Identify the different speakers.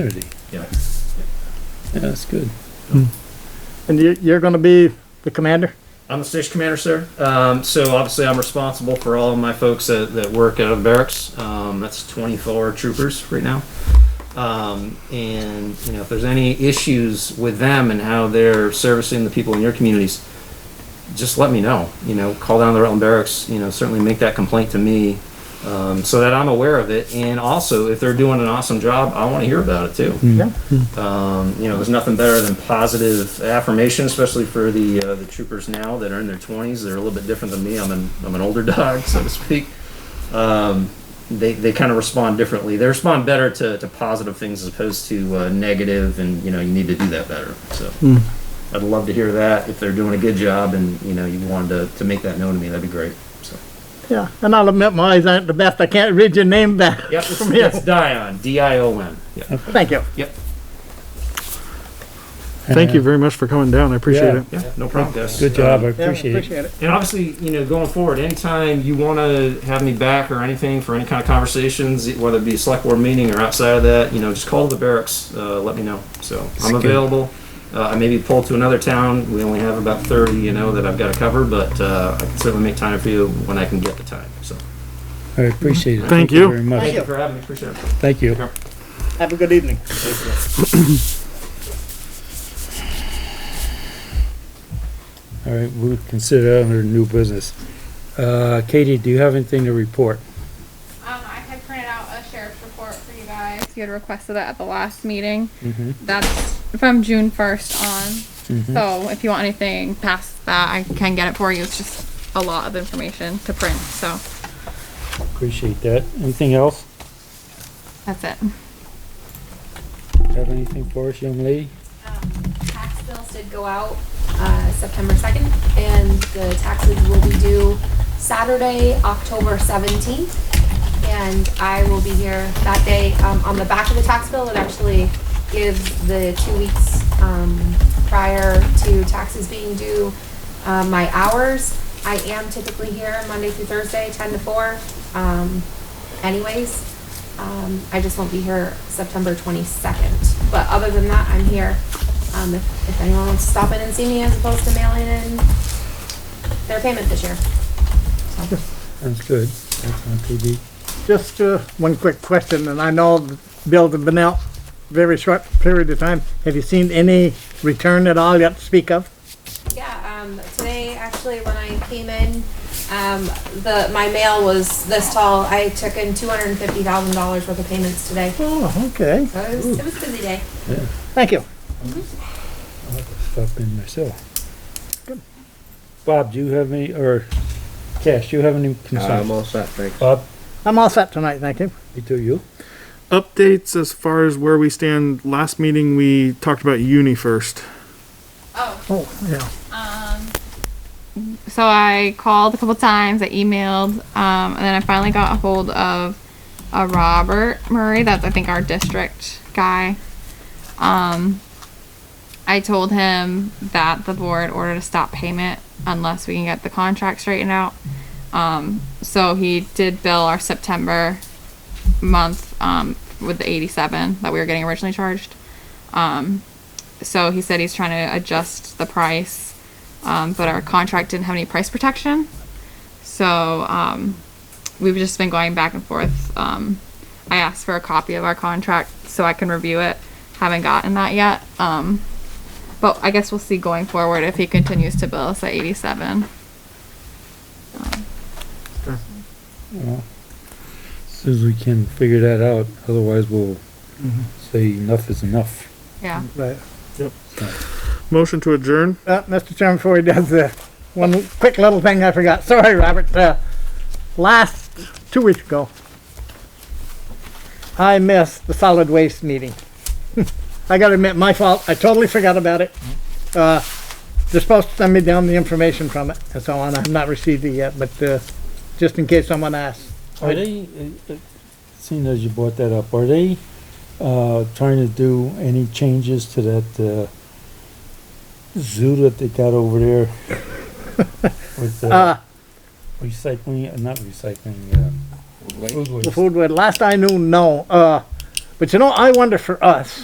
Speaker 1: community.
Speaker 2: Yeah.
Speaker 1: Yeah, that's good.
Speaker 3: And you, you're going to be the commander?
Speaker 2: I'm the station commander, sir. Um, so obviously, I'm responsible for all of my folks that, that work out of barracks. Um, that's 24 troopers right now. Um, and you know, if there's any issues with them and how they're servicing the people in your communities, just let me know. You know, call down to the Rutland Barracks. You know, certainly make that complaint to me, um, so that I'm aware of it. And also, if they're doing an awesome job, I want to hear about it too.
Speaker 4: Mm.
Speaker 3: Yeah.
Speaker 2: Um, you know, there's nothing better than positive affirmation, especially for the uh, the troopers now that are in their 20s. They're a little bit different than me. I'm an I'm an older dog, so to speak. Um, they they kind of respond differently. They respond better to, to positive things as opposed to uh, negative, and you know you need to do that better. So
Speaker 1: Hmm.
Speaker 2: I'd love to hear that if they're doing a good job, and you know you wanted to, to make that known to me, that'd be great. So
Speaker 3: Yeah. And I'll admit my eyes aren't the best. I can't read your name back
Speaker 2: yep, it's,
Speaker 3: from here.
Speaker 2: it's Dion D I O N. Yeah.
Speaker 3: Thank you.
Speaker 2: Yep.
Speaker 4: Thank you very much for coming down. I appreciate
Speaker 1: Yeah.
Speaker 4: it.
Speaker 2: Yeah. No problem, guys.
Speaker 1: Good job, I
Speaker 3: Yeah,
Speaker 1: appreciate it.
Speaker 3: Appreciate it.
Speaker 2: And obviously, you know, going forward, anytime you want to have me back or anything for any kind of conversations, whether it be a select board meeting or outside of that, you know, just call the barracks, uh, let me know. So I'm
Speaker 1: good.
Speaker 2: available. Uh, I may be pulled to another town. We only have about 30, you know, that I've got to cover, but uh, I can certainly make time for you when I can get the time. So
Speaker 1: I appreciate it.
Speaker 4: Thank you.
Speaker 1: Very
Speaker 2: thank
Speaker 1: much.
Speaker 2: you for having me. Appreciate it.
Speaker 1: Thank you.
Speaker 3: Have a good evening.
Speaker 1: All right, we'll consider that under new business. Uh, Katie, do you have anything to report?
Speaker 5: Um, I had printed out a sheriff's report for you guys. You had requested that at the last meeting.
Speaker 1: Mhm.
Speaker 5: That's from June first on. So if you want anything past that, I can get it for you. It's just a lot of information to print, so
Speaker 1: Appreciate that. Anything else?
Speaker 5: that's it.
Speaker 1: Have anything for us, young lady?
Speaker 6: Um, Tax bills did go out uh, September 2nd, and the taxes will be due Saturday, October 17th. And I will be here that day. Um, On the back of the tax bill, it actually gives the two weeks um, prior to taxes being due, uh, my hours. I am typically here Monday through Thursday, 10 to 4 um, anyways. Um, I just won't be here September 22nd. But other than that, I'm here. Um, if, if anyone wants to stop in and see me as opposed to mailing in their payment this year. So,
Speaker 1: Sounds good. That's on TV.
Speaker 3: Just uh, one quick question, and I know the bills have been out very short period of time. Have you seen any return at all yet to speak of?
Speaker 6: yeah, um, today actually when I came in, um, the, my mail was this tall. I took in $250,000 worth of payments today. So
Speaker 3: Oh, okay.
Speaker 6: it was, it was a busy day.
Speaker 3: Thank you.
Speaker 1: Stop in myself. Bob, do you have any, or Cash, do you have any concerns?
Speaker 2: all set. Thanks.
Speaker 1: Bob,
Speaker 3: I'm all set tonight. Thank you.
Speaker 1: me too, you?
Speaker 4: Updates as far as where we stand. Last meeting, we talked about uni first.
Speaker 5: Oh,
Speaker 3: Oh, yeah.
Speaker 5: so I called a couple times, I emailed, um, and then I finally got a hold of uh, Robert Murray. That's I think our district guy. Um, I told him that the board ordered a stop payment unless we can get the contract straightened out. Um, so he did bill our September month um, with the 87 that we were getting originally charged. Um, so he said he's trying to adjust the price um, but our contract didn't have any price protection. So um, we've just been going back and forth. Um, I asked for a copy of our contract so I can review it. Haven't gotten that yet. Um, but I guess we'll see going forward if he continues to bill us at 87.
Speaker 1: Soon as we can figure that out, otherwise we'll say enough is enough.
Speaker 5: Yeah.
Speaker 3: Right.
Speaker 4: Motion to adjourn.
Speaker 3: Uh, Mr. Chairman, before he does this, one quick little thing I forgot. Sorry, Robert. Uh, last, two weeks ago, I missed the solid waste meeting. I gotta admit, my fault. I totally forgot about it. Uh, they're supposed to send me down the information from it and so on. I've not received it yet, but, uh, just in case someone asks.
Speaker 1: Are they, uh, uh, seeing as you brought that up, are they, uh, trying to do any changes to that, uh, zoo that they got over there? With,
Speaker 3: Uh,
Speaker 1: uh, recycling, uh, not recycling, uh,
Speaker 3: the
Speaker 1: food waste.
Speaker 3: food, wa- last I knew, no. Uh, But you know, I wonder for us,